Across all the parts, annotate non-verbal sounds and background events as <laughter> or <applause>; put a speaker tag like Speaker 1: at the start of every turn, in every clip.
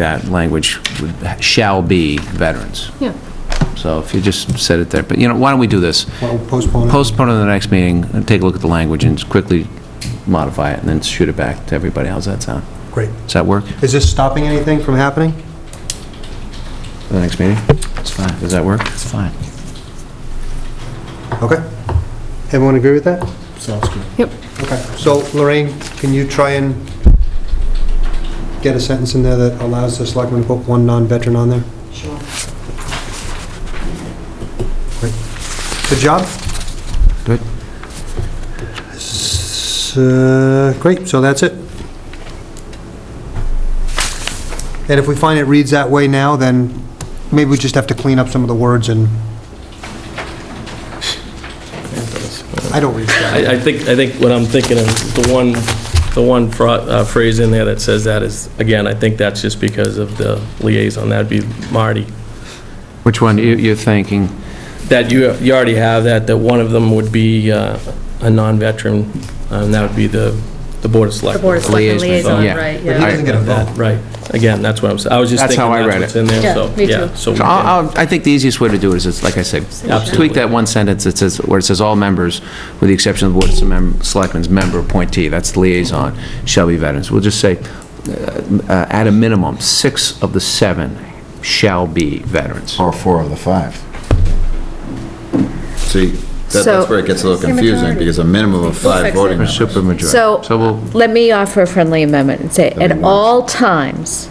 Speaker 1: that language would- shall be veterans.
Speaker 2: Yeah.
Speaker 1: So if you just said it there, but you know, why don't we do this?
Speaker 3: Well, postpone it.
Speaker 1: Postpone it to the next meeting, and take a look at the language, and quickly modify it, and then shoot it back to everybody. How's that sound?
Speaker 3: Great.
Speaker 1: Does that work,
Speaker 3: Is this stopping anything from happening?
Speaker 1: the next meeting? It's fine. Does that work? It's fine.
Speaker 3: Okay. Everyone agree with that?
Speaker 4: Sounds good.
Speaker 2: Yep.
Speaker 3: Okay. So Lorraine, can you try and get a sentence in there that allows the selectman to put one non-veteran on there?
Speaker 5: Sure.
Speaker 3: Good job.
Speaker 1: Good.
Speaker 3: S- uh, Great, so that's it. And if we find it reads that way now, then maybe we just have to clean up some of the words and... I don't read that.
Speaker 4: I, I think, I think what I'm thinking of, the one, the one fra- uh, phrase in there that says that is, again, I think that's just because of the liaison, that'd be Marty.
Speaker 1: Which one you- you're thinking?
Speaker 4: That you, you already have that, that one of them would be uh, a non-veteran, and that would be the, the Board of
Speaker 2: The
Speaker 4: Selectmen.
Speaker 2: Board of Selectmen
Speaker 1: Liaison,
Speaker 2: liaison,
Speaker 1: yeah.
Speaker 2: right,
Speaker 3: But he
Speaker 2: yeah.
Speaker 3: doesn't get a vote.
Speaker 4: That, Right, again, that's what I'm, s- I was just
Speaker 1: That's
Speaker 4: thinking
Speaker 1: how I
Speaker 4: that's
Speaker 1: read
Speaker 4: what's
Speaker 1: it.
Speaker 4: in there,
Speaker 2: Yeah,
Speaker 4: so,
Speaker 2: me too.
Speaker 4: yeah. so
Speaker 1: So
Speaker 4: we can-
Speaker 1: I'll- I'll- I think the easiest way to do it is, it's like I said,
Speaker 4: Absolutely.
Speaker 1: tweak that one sentence that says, where it says, "All members, with the exception of the Board of Selectmen- Selectmen's member appointee," that's the liaison, "shall be veterans." We'll just say, uh, uh, at a minimum, six of the seven shall be veterans.
Speaker 6: Or four of the five. See,
Speaker 2: So-
Speaker 6: that- that's where it gets a little confusing, because a minimum of five
Speaker 2: fix it.
Speaker 6: voting
Speaker 2: Or
Speaker 6: members. supermajority.
Speaker 2: So,
Speaker 1: So we'll-
Speaker 2: let me offer a friendly amendment and say, at all times,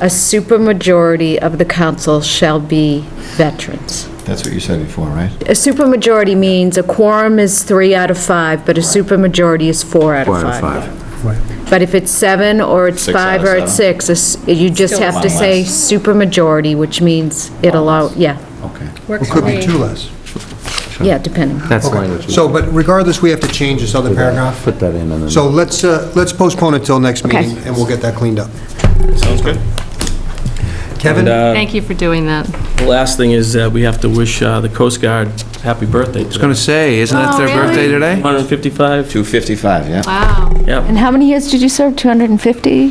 Speaker 2: a supermajority of the council shall be veterans.
Speaker 6: That's what you said before, right?
Speaker 2: A supermajority means a quorum is three out of five, but a supermajority is four out of
Speaker 1: Four out of
Speaker 2: five.
Speaker 1: five.
Speaker 2: But if it's seven, or it's
Speaker 6: Six out
Speaker 2: five,
Speaker 6: of
Speaker 2: or it's six, it's- you just
Speaker 5: Still
Speaker 2: have to
Speaker 6: one
Speaker 2: say supermajority, which means it allow, yeah,
Speaker 6: Okay.
Speaker 5: Works
Speaker 3: It
Speaker 5: for
Speaker 3: could be
Speaker 5: me.
Speaker 3: two less.
Speaker 2: yeah, depending.
Speaker 1: That's the language.
Speaker 3: So, but regardless, we have to change this other paragraph.
Speaker 1: Put that in and then...
Speaker 3: So let's, uh, let's postpone it till next
Speaker 2: Okay.
Speaker 3: meeting, and we'll get that cleaned up.
Speaker 4: Sounds good.
Speaker 3: Kevin?
Speaker 4: And, uh,
Speaker 7: Thank you for doing that.
Speaker 4: The last thing is that we have to wish uh, the Coast Guard happy birthday
Speaker 1: I was going to say, isn't it
Speaker 7: Oh,
Speaker 1: their
Speaker 7: really?
Speaker 1: birthday today?
Speaker 4: 155,
Speaker 6: 255, yeah?
Speaker 7: Wow.
Speaker 4: yeah.
Speaker 8: And how many years did you serve? 250?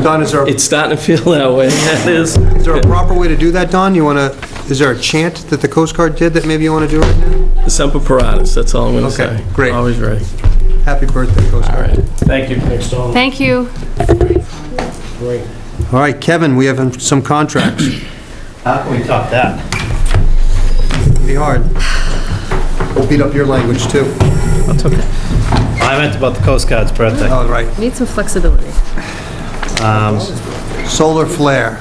Speaker 3: Don, is there,
Speaker 4: It's starting to feel that way, <laughs> it is.
Speaker 3: is there a proper way to do that, Don? You want to, is there a chant that the Coast Guard did that maybe you want to do right now?
Speaker 4: Semper Paratus, that's all I'm going to say.
Speaker 3: Okay, great.
Speaker 4: Always ready.
Speaker 3: Happy birthday, Coast
Speaker 4: All
Speaker 3: Guard.
Speaker 4: right. Thank you. Thanks, Tom.
Speaker 7: Thank you.
Speaker 3: All right, Kevin, we have some contracts.
Speaker 9: How can we top that?
Speaker 3: Be hard. We'll beat up your language, too.
Speaker 9: I meant about the Coast Guard's birthday.
Speaker 3: All right. Um,
Speaker 2: Need some flexibility.
Speaker 3: Solar flare.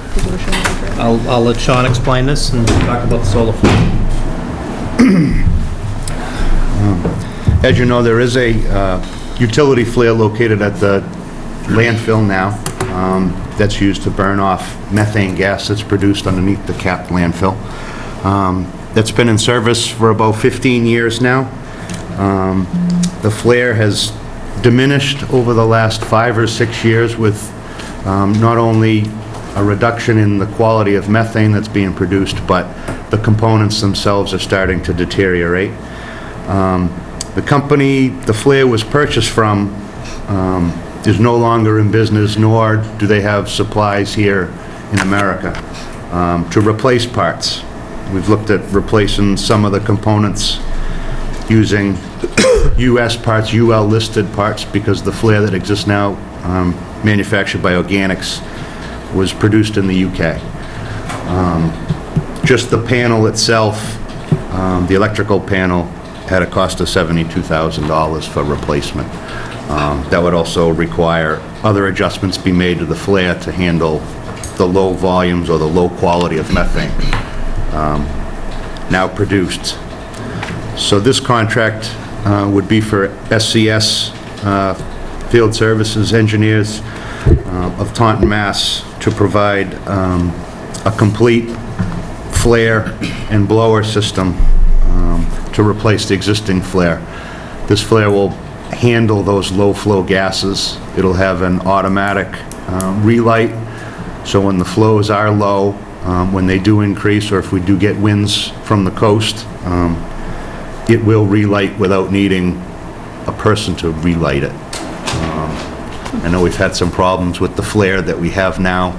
Speaker 9: I'll, I'll let Sean explain this and talk about the solar farm.
Speaker 10: As you know, there is a uh, utility flare located at the landfill now um, that's used to burn off methane gas that's produced underneath the capped landfill. Um, That's been in service for about 15 years now. Um, The flare has diminished over the last five or six years with um, not only a reduction in the quality of methane that's being produced, but the components themselves are starting to deteriorate. Um, The company the flare was purchased from um, is no longer in business, nor do they have supplies here in America um, to replace parts. We've looked at replacing some of the components using US parts, UL-listed parts, because the flare that exists now, um, manufactured by Organics, was produced in the UK just the panel itself, um, the electrical panel, had a cost of $72,000 for replacement. Um, That would also require other adjustments be made to the flare to handle the low volumes or the low quality of methane um, now produced. So this contract uh, would be for SCS uh, Field Services Engineers uh, of Taunton, Mass. to provide um, a complete flare and blower system um, to replace the existing flare. This flare will handle those low-flow gases. It'll have an automatic um, relight, so when the flows are low, um, when they do increase, or if we do get winds from the coast, um, it will relight without needing a person to relight it. Um, I know we've had some problems with the flare that we have now